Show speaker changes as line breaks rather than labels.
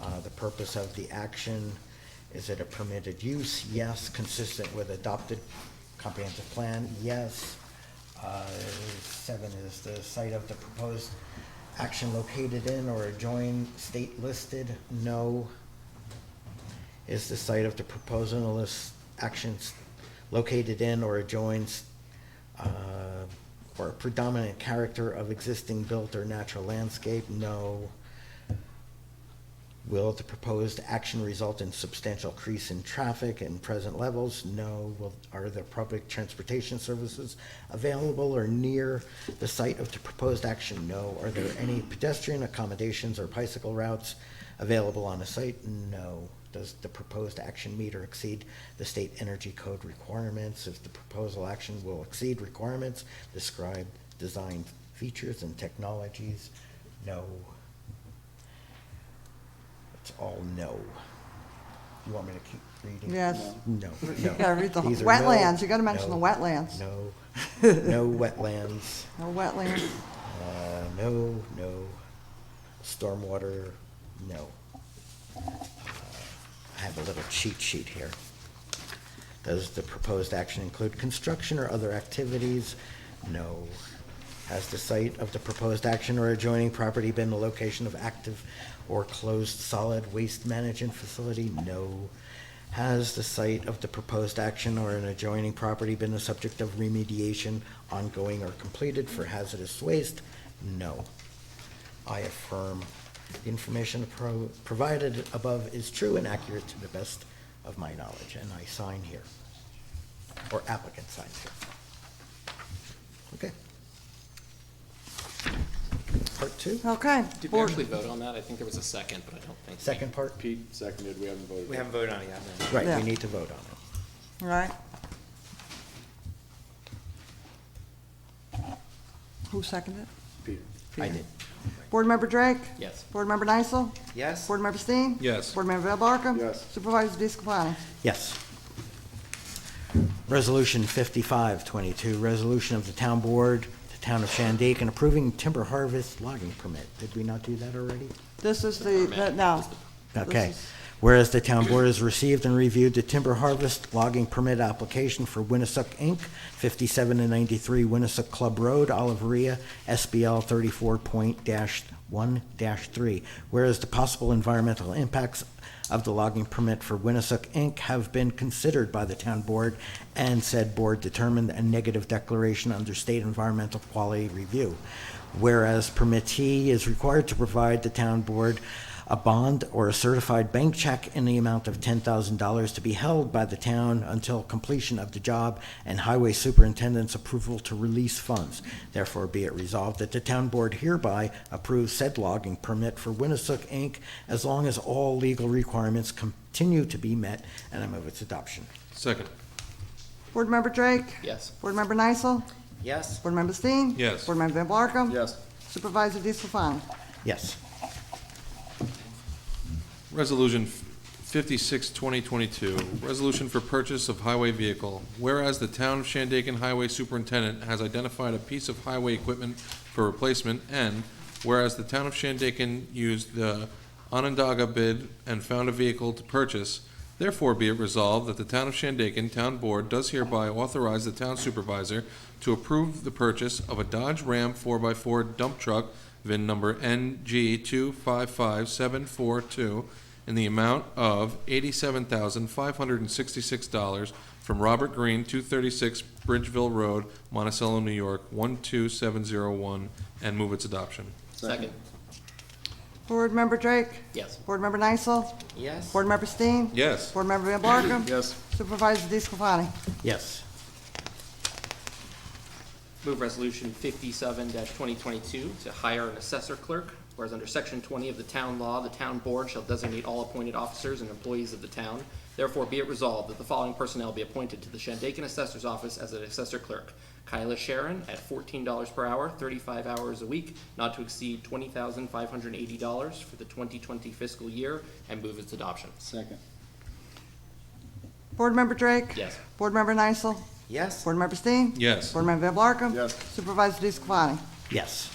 Uh, the purpose of the action. Is it a permitted use? Yes. Consistent with adopted comprehensive plan? Yes. Uh, Seven is the site of the proposed action located in or adjoined state listed? No. Is the site of the proposal list actions located in or adjoins uh, or predominant character of existing built or natural landscape? No. Will the proposed action result in substantial increase in traffic and present levels? No. Will, are the public transportation services available or near the site of the proposed action? No. Are there any pedestrian accommodations or bicycle routes available on the site? No. Does the proposed action meet or exceed the state energy code requirements? If the proposal action will exceed requirements, describe design features and technologies? No. It's all no. You want me to keep reading?
Yes.
No, no.
You gotta read the
These are no,
wetlands, you gotta mention
no,
the wetlands.
No, no wetlands,
No wetlands,
uh, no, no. Stormwater, no. Uh, I have a little cheat sheet here. Does the proposed action include construction or other activities? No. Has the site of the proposed action or adjoining property been the location of active or closed solid waste management facility? No. Has the site of the proposed action or an adjoining property been the subject of remediation ongoing or completed for hazardous waste? No. I affirm the information pro- provided above is true and accurate to the best of my knowledge, and I sign here. Or applicant signs here. Okay. Part two,
okay.
Did we
board.
actually vote on that? I think there was a second, but I don't think.
second part?
Pete seconded, we haven't voted.
We haven't voted on it yet. no.
Right,
Yeah.
we need to vote on it.
Right. Who seconded it?
Pete.
I did.
Board Member Drake?
Yes.
Board Member Nysel?
Yes?
Board Member Steen?
Yes.
Board Member Van Barcom?
Yes.
Supervisor DeScalani?
Yes. Resolution 5522, resolution of the town board, the town of Shandaken approving timber harvest logging permit. Did we not do that already?
This is the, that- no. This
Okay.
is-
Whereas the town board has received and reviewed the timber harvest logging permit application for Winnisook Inc., 57 and 93 Winnisook Club Road, Oliveria, SBL 34.1-3. Whereas the possible environmental impacts of the logging permit for Winnisook Inc. have been considered by the town board, and said board determined a negative declaration under state environmental quality review. Whereas permittee is required to provide the town board a bond or a certified bank check in the amount of $10,000 to be held by the town until completion of the job and highway superintendent's approval to release funds. Therefore, be it resolved that the town board hereby approves said logging permit for Winnisook Inc. as long as all legal requirements continue to be met, and I move its adoption.
Second.
Board Member Drake?
Yes.
Board Member Nysel?
Yes.
Board Member Steen?
Yes.
Board Member Van Barcom?
Yes.
Supervisor DeScalani?
Yes.
Resolution 56, 2022, resolution for purchase of highway vehicle. Whereas the town of Shandaken Highway Superintendent has identified a piece of highway equipment for replacement, and whereas the town of Shandaken used the Onondaga bid and found a vehicle to purchase, therefore be it resolved that the town of Shandaken Town Board does hereby authorize the town supervisor to approve the purchase of a Dodge Ram 4x4 dump truck VIN number NG two five five seven four two in the amount of eighty-seven thousand five hundred and sixty-six dollars from Robert Green, two thirty-six Bridgeville Road, Monticello, New York, one two seven zero one, and move its adoption.
Second.
Board Member Drake?
Yes.
Board Member Nysel?
Yes.
Board Member Steen?
Yes.
Board Member Van Barcom?
Yes.
Supervisor DeScalani?
Yes.
Move resolution fifty-seven twenty twenty-two to hire an assessor clerk. Whereas under section twenty of the town law, the town board shall designate all appointed officers and employees of the town. Therefore, be it resolved that the following personnel be appointed to the Shandaken Assessor's Office as an assessor clerk. Kyla Sharon at fourteen dollars per hour, thirty-five hours a week, not to exceed twenty thousand five hundred and eighty dollars for the twenty twenty fiscal year, and move its adoption.
Second.
Board Member Drake?
Yes.
Board Member Nysel?
Yes.
Board Member Steen?
Yes.
Board Member Van Blarkum?
Yes.
Supervisor DeScalani?
Yes.